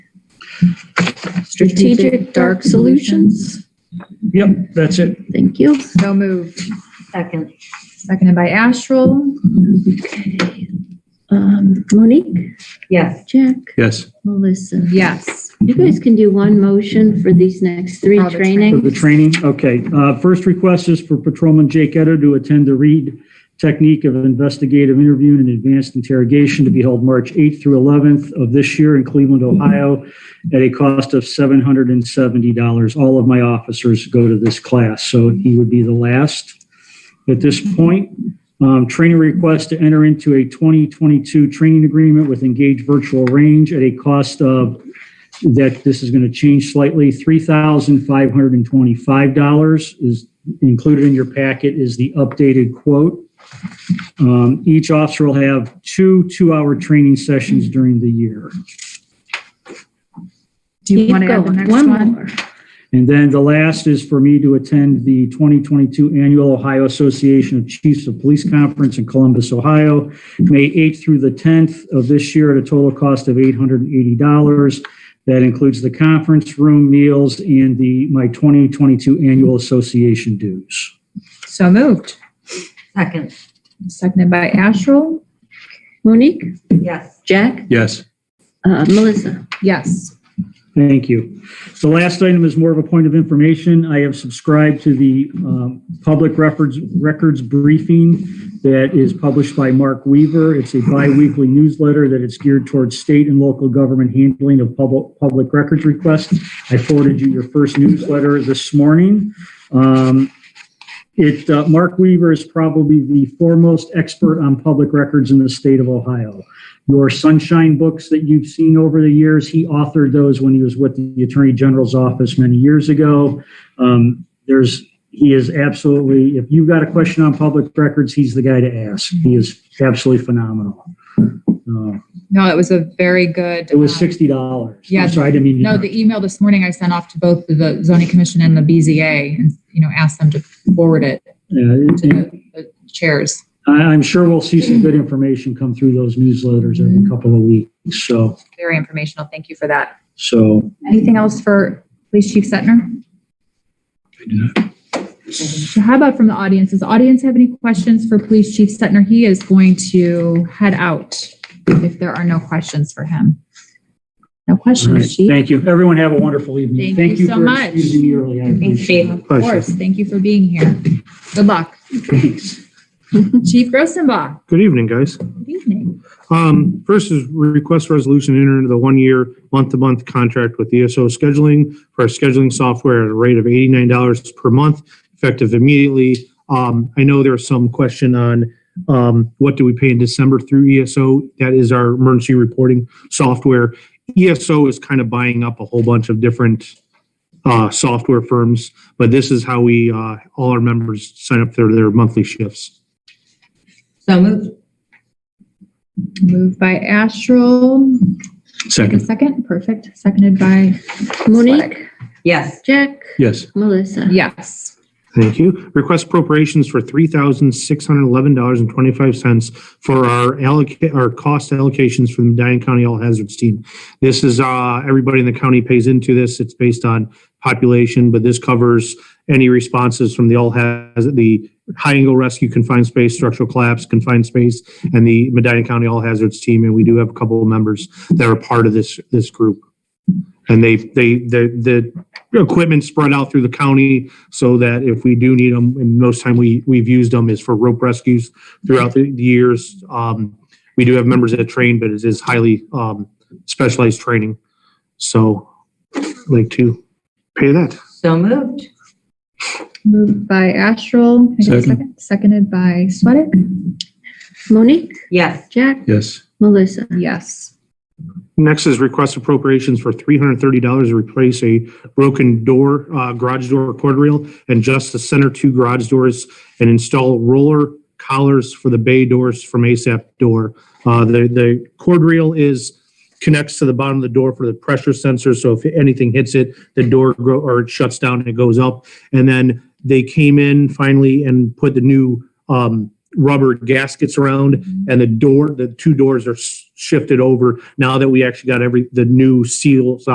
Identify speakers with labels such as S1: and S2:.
S1: Strategic Dark Solutions.
S2: Yep, that's it.
S1: Thank you.
S3: So moved.
S4: Second.
S3: Seconded by Astral.
S1: Um, Monique,
S4: Yes.
S1: Jack,
S2: Yes.
S1: Melissa.
S3: Yes.
S1: You guys can do one motion for these next three
S3: Oh, the
S2: For the
S1: trainings.
S2: training, okay. Uh, First request is for Patrolman Jake Etter to attend the READ technique of investigative interview and advanced interrogation to be held March 8th through 11th of this year in Cleveland, Ohio, at a cost of $770. All of my officers go to this class, so he would be the last at this point. Um, Training request to enter into a 2022 training agreement with Engage Virtual Range at a cost of that this is going to change slightly. $3,525 is included in your packet is the updated quote. Um, Each officer will have two two-hour training sessions during the year.
S3: Do you
S1: Keep
S3: want to add the
S1: going.
S3: next one?
S1: more.
S2: And then the last is for me to attend the 2022 Annual Ohio Association of Chiefs of Police Conference in Columbus, Ohio, May 8th through the 10th of this year at a total cost of $880. That includes the conference room, meals, and the, my 2022 Annual Association dues.
S3: So moved.
S4: Second.
S3: Seconded by Astral.
S1: Monique,
S4: Yes.
S1: Jack,
S5: Yes,
S1: uh, Melissa.
S3: Yes.
S2: Thank you. The last item is more of a point of information. I have subscribed to the um, public records, records briefing that is published by Mark Weaver. It's a bi-weekly newsletter that it's geared towards state and local government handling of public, public records requests. I forwarded you your first newsletter this morning. Um, It, uh, Mark Weaver is probably the foremost expert on public records in the state of Ohio your sunshine books that you've seen over the years. He authored those when he was with the Attorney General's office many years ago. Um, there's he is absolutely if you've got a question on public records, he's the guy to ask. He is absolutely phenomenal. Uh,
S3: No, it was a very good.
S2: it was
S3: um,
S2: sixty dollars.
S3: Yeah.
S2: sorry, I didn't mean to
S3: No, the email this morning I sent off to both the zoning commission and the BZA and, you know, asked them to forward it
S2: Yeah, it-
S3: to the the chairs.
S2: I, I'm sure we'll see some good information come through those newsletters
S3: Mm-hmm.
S2: every couple of weeks. So
S3: Very informational. Thank you for that.
S2: so
S3: Anything else for Police Chief Setner?
S5: I do not.
S3: So how about from the audience? Does the audience have any questions for Police Chief Setner? He is going to head out if there are no questions for him. No
S2: all right,
S3: questions, Chief?
S2: thank you. Everyone have a wonderful evening.
S3: Thank you so
S2: for
S3: much.
S2: excusing me early. I appreciate it.
S4: you.
S3: Of course. Thank you for being here. Good luck.
S2: Thanks.
S3: Chief Grossenbach,
S6: Good evening, guys.
S3: good evening.
S6: Um, First is request resolution to enter into the one-year, month-to-month contract with ESO scheduling for our scheduling software at a rate of $89 per month, effective immediately. Um, I know there's some question on um, what do we pay in December through ESO? That is our emergency reporting software. ESO is kind of buying up a whole bunch of different uh, software firms, but this is how we, uh, all our members sign up for their monthly shifts.
S4: So moved.
S3: Moved by Astral. A
S5: second,
S3: second, perfect. Seconded by
S1: Monique,
S3: Swack.
S4: Yes.
S1: Jack,
S5: yes,
S1: Melissa.
S3: Yes.
S6: Thank you. Request appropriations for three thousand six hundred eleven dollars and twenty-five cents for our allocate, our cost allocations from the Diane County All Hazards Team. This is, uh, everybody in the county pays into this. It's based on population, but this covers any responses from the All Hazard, the High Angle Rescue Confined Space, Structural Collapse, Confined Space, and the Medina County All Hazards Team. And we do have a couple of members that are part of this, this group. And they, they, the, the equipment spread out through the county so that if we do need them, and most time we, we've used them is for rope rescues throughout the the years. Um, we do have members that train, but it is highly, um, specialized training. So I'd like to pay that.
S4: So moved.
S3: Moved by Astral. Can I get a
S5: Second.
S3: second? Seconded by Sweattick.
S1: Monique,
S4: Yes.
S1: Jack,
S5: yes,
S1: Melissa.
S3: Yes.
S6: Next is request appropriations for three hundred and thirty dollars to replace a broken door, uh, garage door cord reel and just the center two garage doors and install roller collars for the bay doors from ASAP door. Uh, the, the cord reel is, connects to the bottom of the door for the pressure sensor. So if anything hits it, the door grow, or it shuts down and it goes up. And then they came in finally and put the new, um, rubber gaskets around and the door, the two doors are s- shifted over now that we actually got every, the new seals